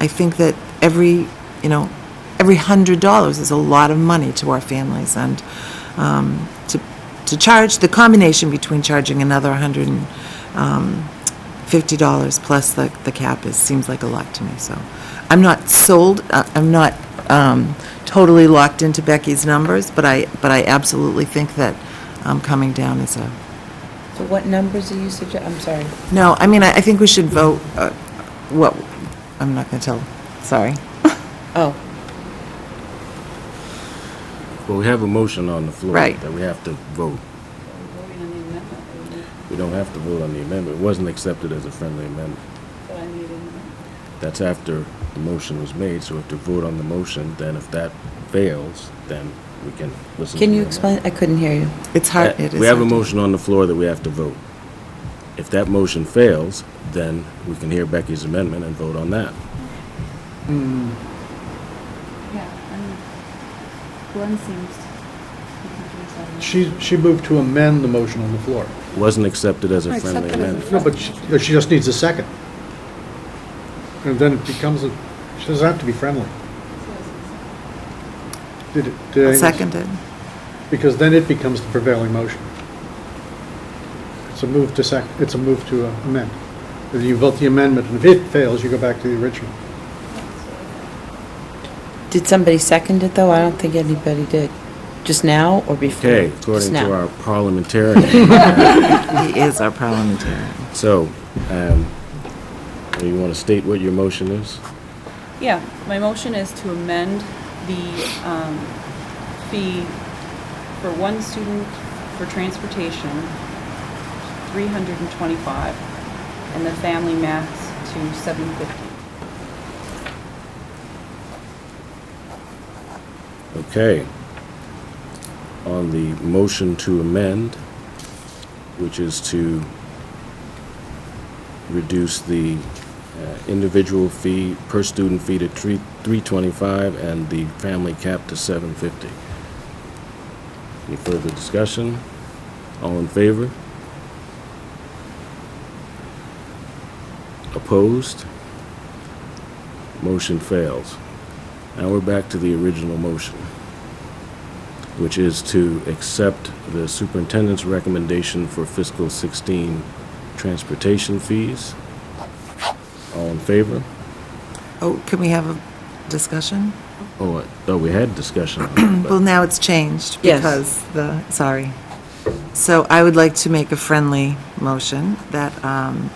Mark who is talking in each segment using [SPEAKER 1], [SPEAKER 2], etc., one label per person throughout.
[SPEAKER 1] I think that every, you know, every hundred dollars is a lot of money to our families, and um, to, to charge, the combination between charging another hundred and um, fifty dollars plus the, the cap is, seems like a lot to me, so. I'm not sold, I- I'm not um, totally locked into Becky's numbers, but I, but I absolutely think that um, coming down is a,
[SPEAKER 2] So what numbers are you suggest, I'm sorry.
[SPEAKER 1] no, I mean, I, I think we should vote, uh, what, I'm not gonna tell, sorry.
[SPEAKER 2] Oh,
[SPEAKER 3] Well, we have a motion on the floor.
[SPEAKER 1] Right.
[SPEAKER 3] That we have to vote. We don't have to vote on the amendment. It wasn't accepted as a friendly amendment. That's after the motion was made, so we have to vote on the motion, then if that fails, then we can listen. to
[SPEAKER 2] can you
[SPEAKER 3] the
[SPEAKER 2] explain, I couldn't hear you.
[SPEAKER 1] It's hard, it
[SPEAKER 3] amendment.
[SPEAKER 1] is.
[SPEAKER 3] Uh, We have a
[SPEAKER 1] hard to-
[SPEAKER 3] motion on the floor that we have to vote. If that motion fails, then we can hear Becky's amendment and vote on that.
[SPEAKER 4] Yeah, and Glenn seems to be confused on that.
[SPEAKER 5] She, she moved to amend the motion on the floor.
[SPEAKER 3] Wasn't accepted as a friendly amendment.
[SPEAKER 5] No, but she, but she just needs a second. And then it becomes a, she doesn't have to be friendly. Did it- did
[SPEAKER 1] I'll
[SPEAKER 5] anyone-
[SPEAKER 1] Second it.
[SPEAKER 5] Because then it becomes the prevailing motion. It's a move to sec, it's a move to uh, amend. If You vote the amendment, and if it fails, you go back to the original.
[SPEAKER 2] Did somebody second it, though? I don't think anybody did. Just now or before?
[SPEAKER 3] Okay,
[SPEAKER 2] Just
[SPEAKER 3] according
[SPEAKER 2] now.
[SPEAKER 3] to our parliamentarian,
[SPEAKER 1] He is our parliamentarian.
[SPEAKER 3] So, um, you want to state what your motion is?
[SPEAKER 4] Yeah, my motion is to amend the um, fee for one student for transportation, 325, and the family max to 750.
[SPEAKER 3] Okay. On the motion to amend, which is to reduce the uh, individual fee, per student fee to three, 325 and the family cap to 750. Any further discussion? All in favor? Opposed? Motion fails. Now we're back to the original motion, which is to accept the superintendent's recommendation for fiscal 16 transportation fees. All in favor?
[SPEAKER 1] Oh, can we have a discussion?
[SPEAKER 3] Oh, I thought we had discussion on it,
[SPEAKER 1] Well,
[SPEAKER 3] but
[SPEAKER 1] now it's changed
[SPEAKER 2] Yes.
[SPEAKER 1] because the, sorry. So I would like to make a friendly motion that, um,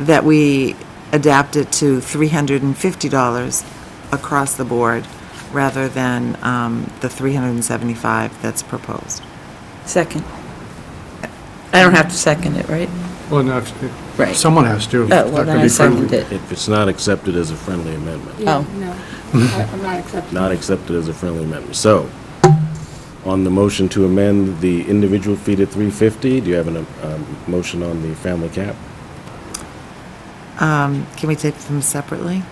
[SPEAKER 1] that we adapt it to $350 across the board rather than um, the 375 that's proposed.
[SPEAKER 2] Second. I don't have to second it, right?
[SPEAKER 5] Well, no,
[SPEAKER 2] Right.
[SPEAKER 5] someone has to.
[SPEAKER 2] Oh, well, then I seconded it.
[SPEAKER 3] if it's not accepted as a friendly amendment,
[SPEAKER 2] Oh.
[SPEAKER 4] No, I'm not accepting.
[SPEAKER 3] not accepted as a friendly amendment. So, on the motion to amend the individual fee to 350, do you have a um, motion on the family cap?
[SPEAKER 1] Um, Can we take them separately?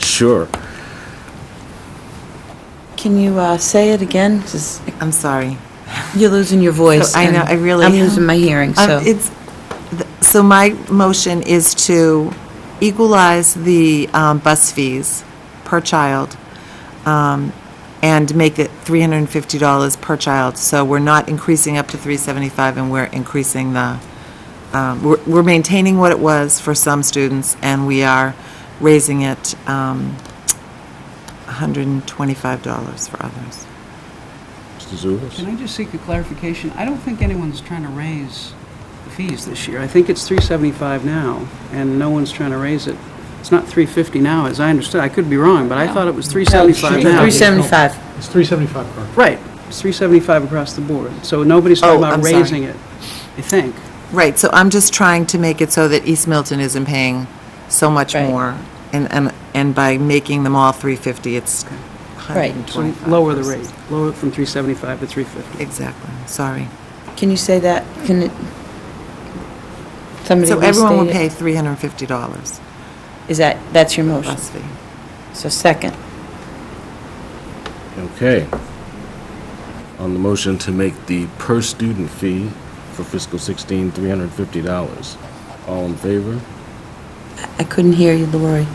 [SPEAKER 3] Sure.
[SPEAKER 2] Can you uh, say it again? 'Cause
[SPEAKER 1] I'm sorry.
[SPEAKER 2] You're losing your voice.
[SPEAKER 1] So I know,
[SPEAKER 2] and
[SPEAKER 1] I really
[SPEAKER 2] I'm
[SPEAKER 1] am.
[SPEAKER 2] losing my hearing,
[SPEAKER 1] Um,
[SPEAKER 2] so.
[SPEAKER 1] It's, th- so my motion is to equalize the um, bus fees per child um, and make it $350 per child. So we're not increasing up to 375 and we're increasing the, um, we're we're maintaining what it was for some students and we are raising it um, $125 for others.
[SPEAKER 3] Mr. Zulus?
[SPEAKER 6] Can I just seek a clarification? I don't think anyone's trying to raise the fees this year. I think it's 375 now, and no one's trying to raise it. It's not 350 now, as I understood. I could be wrong, but I thought it was 375 now.
[SPEAKER 2] 375.
[SPEAKER 5] It's 375 per.
[SPEAKER 6] Right, it's 375 across the board. So nobody's
[SPEAKER 1] Oh,
[SPEAKER 6] talking about
[SPEAKER 1] I'm sorry.
[SPEAKER 6] raising it, I think.
[SPEAKER 1] Right, so I'm just trying to make it so that East Milton isn't paying so much
[SPEAKER 2] Right.
[SPEAKER 1] more. And, and, and by making them all 350, it's
[SPEAKER 2] Right.
[SPEAKER 6] So
[SPEAKER 1] 125.
[SPEAKER 6] lower the rate,
[SPEAKER 1] versus-
[SPEAKER 6] lower it from 375 to 350.
[SPEAKER 1] Exactly, sorry.
[SPEAKER 2] Can you say that? Can it? Somebody
[SPEAKER 1] So everyone will
[SPEAKER 2] restate
[SPEAKER 1] pay
[SPEAKER 2] it?
[SPEAKER 1] $350
[SPEAKER 2] Is that, that's your motion?
[SPEAKER 1] bus fee.
[SPEAKER 2] So second.
[SPEAKER 3] Okay. On the motion to make the per-student fee for fiscal 16, $350. All in favor?
[SPEAKER 2] I couldn't hear you, Lori.